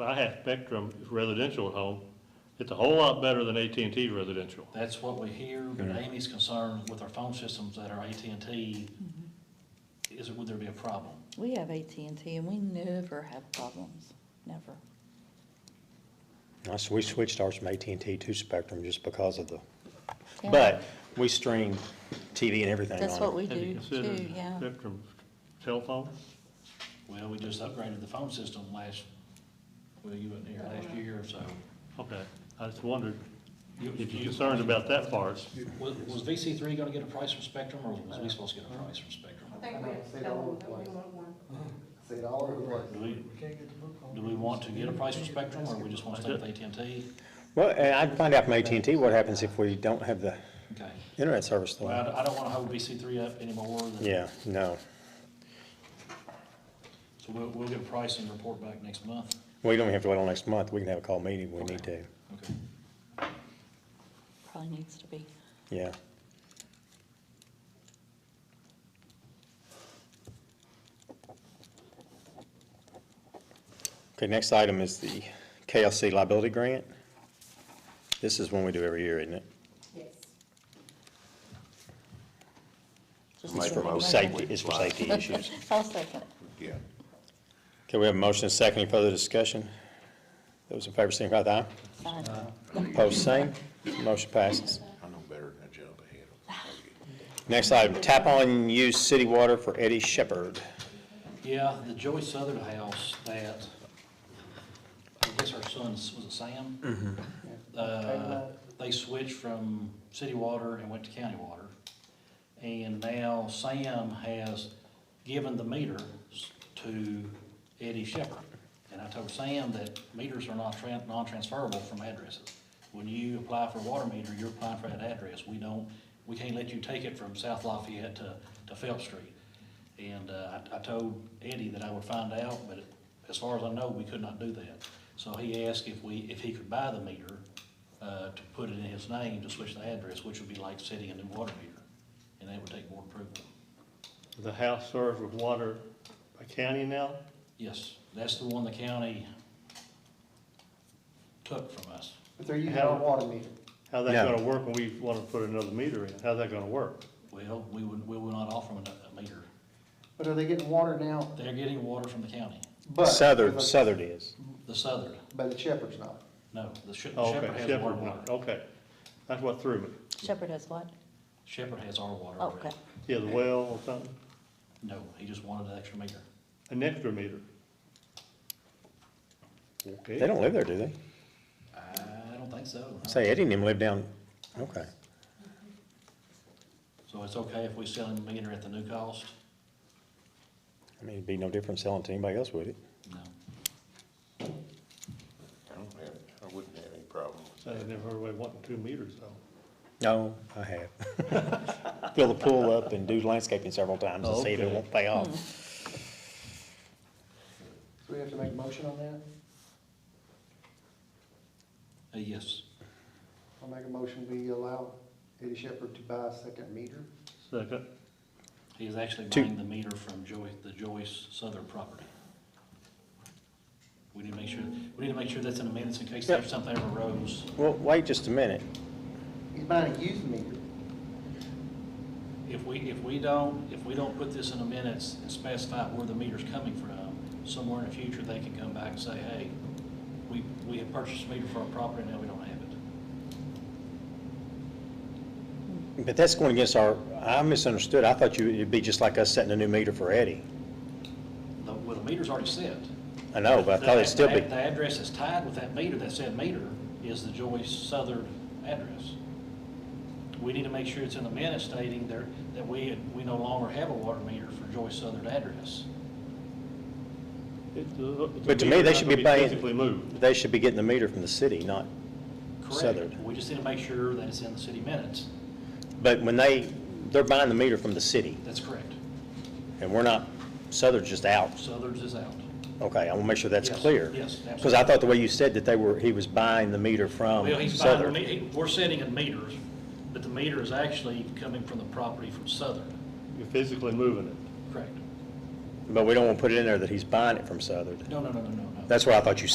I have Spectrum residential at home, it's a whole lot better than AT&T residential. That's what we hear, but Amy's concerned with our phone systems that are AT&T, is, would there be a problem? We have AT&T and we never have problems, never. Now, so we switched ours from AT&T to Spectrum just because of the, Yeah. but we stream TV and everything That's what on it. we Have you do too, considered yeah. Spectrum cell phone? Well, we just upgraded the phone system last, well, you weren't here last year, so. Okay, I just wondered You- if you're concerned about that part. Was, was VC three gonna get a price from Spectrum, or was we supposed to get a price from Spectrum? I think we have to tell them that we want one. Say it all over the place. Do we, do we want to get a price from Spectrum, or we just wanna stay with AT&T? Well, and I'd find out from AT&T what happens if we don't have the Okay, internet service. though. well, I don't- I don't wanna hold VC three up anymore, than- Yeah, no. so we'll, we'll get a price and report back next month. We don't have to wait till next month. We can have a call meeting if we need to. Okay. Probably needs to be. Yeah. Okay, next item is the KLC liability grant. This is one we do every year, isn't it? Yes. Just Make a doing it. motion. Safety, it's for safety issues. I'll second it. Yeah. Okay, we have a motion and a second. Any further discussion? Those in favor, signify with aye. Fine. Uh, Opposed, same. Motion passes. I know better than to jump ahead. Next item, tap on used city water for Eddie Shepherd. Yeah, the Joey Southern house that, I guess our son, was it Sam? Uh, They switched from city water and went to county water. And now Sam has given the meters to Eddie Shepherd. And I told Sam that meters are not tran, non-transferable from addresses. When you apply for a water meter, you're applying for that address. We don't, we can't let you take it from South Lafayette to, to Phelps Street. And, uh, I, I told Eddie that I would find out, but as far as I know, we could not do that. So he asked if we, if he could buy the meter, uh, to put it in his name to switch the address, which would be like setting a new water meter. And that would take board approval. The house served with water by county now? Yes, that's the one the county took from us. But they're using our water meter. How's that No. gonna work when we wanna put another meter in? How's that gonna work? Well, we would, we will not offer them a- a meter. But are they getting water now? They're getting water from the county, But. Southern, Southern is. the Southern, But the Shepherd's not. no, the Shep- Oh, Shepherd Okay, has our Shepherd, water. okay. That's what threw me. Shepherd has what? Shepherd has our water Oh, Okay. already. Yeah, the well or something, No, he just wanted an extra meter. an extra meter. Okay. They don't live there, do they? I don't think so. Say, Eddie and him live down, okay. So it's okay if we sell him a meter at the new cost? I mean, it'd be no different selling to anybody else, would it? No. Uh, I don't have, I wouldn't have any problem with I that. never heard of wanting two meters though. No, I have. Fill the pool up and do landscaping several times and see if it Okay. won't pay off. So we have to make a motion on that? Uh, Yes, I'll make a motion, we allow Eddie Shepherd to buy a second meter. Second, he is actually Two. buying the meter from Joy, the Joyce Southern property. We need to make sure, we need to make sure that's in the minutes in case there's something ever arose. Well, wait just a minute. He's buying a used meter. If we, if we don't, if we don't put this in the minutes and specify where the meter's coming from, somewhere in the future, they can come back and say, hey, we, we have purchased a meter for our property, now we don't have it. But that's going against our, I misunderstood. I thought you, it'd be just like us setting a new meter for Eddie. The- Well, the meter's already set. I know, but I thought it'd still The- be, The address that's tied with that meter, that said meter, is the Joyce Southern address. We need to make sure it's in the minute stating there, that we, we no longer have a water meter for Joyce Southern address. it's a. it's a But to me, meter they not should gonna be paying- Physically moved. they should be getting the meter from the city, not, Correct. Southern. We just need to make sure that it's in the city minutes. but when they, they're buying the meter from the city That's correct. and we're not, Southern's just out. Southern's is out. Okay, I want to make sure that's Yes, clear. yes, Because I thought the way you said that they were, he was buying the meter from Well, he's buying, the Um, Southern. me- he- we're setting in meters, but the meter is actually coming from the property from Southern. You're physically moving it. Correct. But we don't want to put it in there that he's buying it from Southern. No, no, no, no, no, no. That's what I thought you